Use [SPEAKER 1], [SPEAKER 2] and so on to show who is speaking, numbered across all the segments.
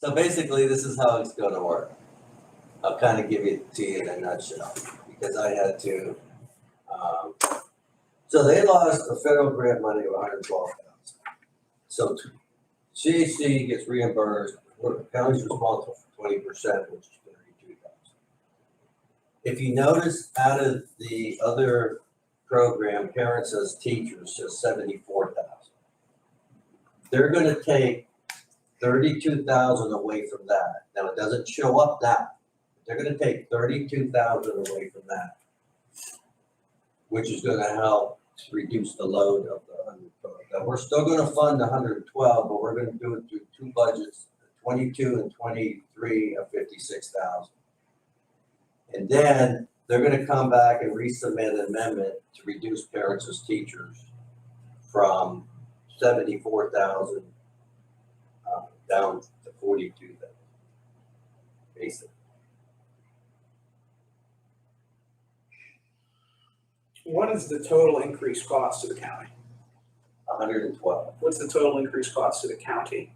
[SPEAKER 1] So basically, this is how it's gonna work. I'll kind of give it to you in a nutshell, because I had to, um, so they lost the federal grant money of hundred twelve thousand. So t- CAC gets reimbursed, the county's responsible for twenty percent, which is thirty-two thousand. If you notice, out of the other program, parents as teachers, just seventy-four thousand. They're gonna take thirty-two thousand away from that. Now, it doesn't show up that. They're gonna take thirty-two thousand away from that. Which is gonna help to reduce the load of the hundred twelve. Now, we're still gonna fund the hundred and twelve, but we're gonna do it through two budgets, twenty-two and twenty-three of fifty-six thousand. And then they're gonna come back and resubmit an amendment to reduce parents as teachers from seventy-four thousand uh, down to forty-two then, basically.
[SPEAKER 2] What is the total increased cost to the county?
[SPEAKER 1] hundred and twelve,
[SPEAKER 2] What's the total increased cost to the county?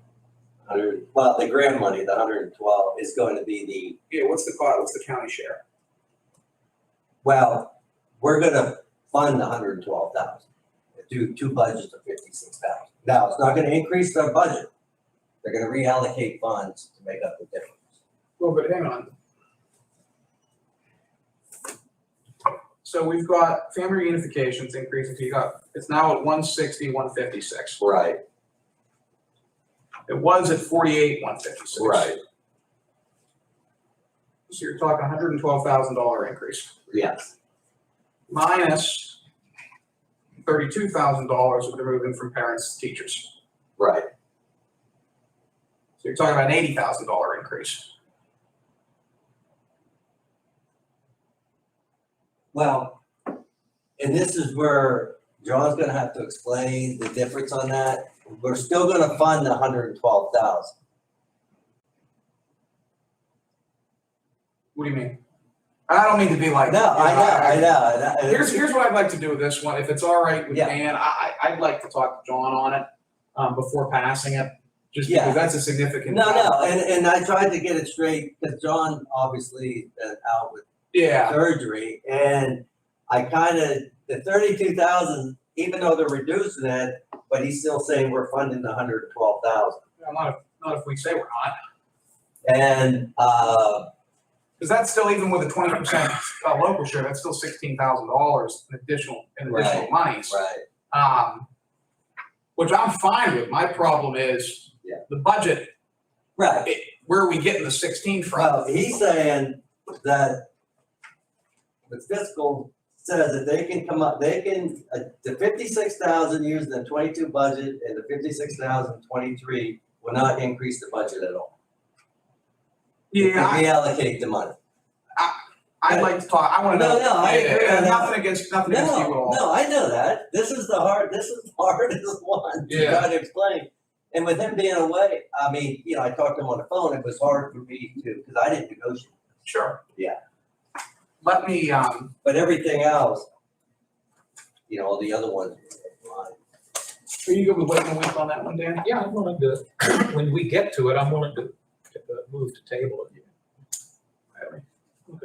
[SPEAKER 1] hundred, well, the grant money, the hundred and twelve is going to be the,
[SPEAKER 2] Yeah, what's the cost, what's the county share?
[SPEAKER 1] well, we're gonna fund the hundred and twelve thousand. Do two budgets of fifty-six thousand. Now, it's not gonna increase their budget. They're gonna reallocate funds to make up the difference.
[SPEAKER 2] Well, but hang on. So we've got family reunifications increasing, so you got, it's now at one sixty, one fifty-six.
[SPEAKER 1] Right,
[SPEAKER 2] It was at forty-eight, one fifty-six. So you're talking hundred and twelve thousand dollar increase,
[SPEAKER 1] Yes,
[SPEAKER 2] minus thirty-two thousand dollars of removing from parents to teachers.
[SPEAKER 1] right,
[SPEAKER 2] So you're talking about an eighty thousand dollar increase.
[SPEAKER 1] well, and this is where John's gonna have to explain the difference on that. We're still gonna fund the hundred and twelve thousand.
[SPEAKER 2] What do you mean? I don't mean to be like.
[SPEAKER 1] No, I know, I know, I know. and
[SPEAKER 2] Here's,
[SPEAKER 1] it's-
[SPEAKER 2] here's what I'd like to do with this one, if it's all right with
[SPEAKER 1] Yeah.
[SPEAKER 2] Dan, I, I, I'd like to talk to John on it, um, before passing it. Just
[SPEAKER 1] Yeah.
[SPEAKER 2] because that's a significant.
[SPEAKER 1] No, no,
[SPEAKER 2] factor.
[SPEAKER 1] and, and I tried to get it straight, because John obviously been out with
[SPEAKER 2] Yeah,
[SPEAKER 1] surgery, and I kinda, the thirty-two thousand, even though they're reducing it, but he's still saying we're funding the hundred and twelve thousand.
[SPEAKER 2] Well, not if, not if we say we're not,
[SPEAKER 1] And, uh,
[SPEAKER 2] because that's still even with a twenty percent uh, local share, that's still sixteen thousand dollars in additional, in additional
[SPEAKER 1] Right,
[SPEAKER 2] monies.
[SPEAKER 1] right,
[SPEAKER 2] Um, which I'm fine with, my problem is
[SPEAKER 1] Yeah.
[SPEAKER 2] the budget,
[SPEAKER 1] right,
[SPEAKER 2] it, where are we getting the sixteen from?
[SPEAKER 1] well, he's saying that the fiscal says that they can come up, they can, uh, the fifty-six thousand used in the twenty-two budget and the fifty-six thousand twenty-three will not increase the budget at all.
[SPEAKER 2] Yeah, I-
[SPEAKER 1] To reallocate the money.
[SPEAKER 2] I'd like to talk, I wanna
[SPEAKER 1] No,
[SPEAKER 2] know.
[SPEAKER 1] no, I
[SPEAKER 2] Yeah, yeah,
[SPEAKER 1] agree
[SPEAKER 2] yeah,
[SPEAKER 1] on that.
[SPEAKER 2] Nothing against, nothing against you at
[SPEAKER 1] No,
[SPEAKER 2] all.
[SPEAKER 1] no, I know that. This is the hard, this is the hardest one to
[SPEAKER 2] Yeah.
[SPEAKER 1] try to explain. And with him being away, I mean, you know, I talked to him on the phone, it was hard for me to, because I didn't negotiate.
[SPEAKER 2] Sure.
[SPEAKER 1] Yeah.
[SPEAKER 2] Let me, um,
[SPEAKER 1] But everything else, you know, all the other ones. fine.
[SPEAKER 2] are you good with waiting a week on that one, Dan?
[SPEAKER 3] Yeah, I'm willing to, when we get to it, I'm willing to uh, move to table it.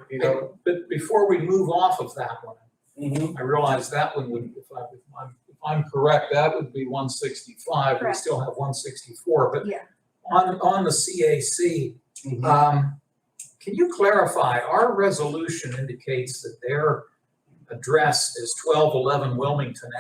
[SPEAKER 2] You know,
[SPEAKER 3] But before we move off of that one,
[SPEAKER 1] Mhm.
[SPEAKER 3] I realize that one would, if I- if I'm, if I'm correct, that would be one sixty-five, we
[SPEAKER 4] Correct.
[SPEAKER 3] still have one sixty-four, but
[SPEAKER 4] Yeah.
[SPEAKER 3] on, on the CAC,
[SPEAKER 1] Mhm.
[SPEAKER 3] um, can you clarify, our resolution indicates that their address is twelve eleven Wilmington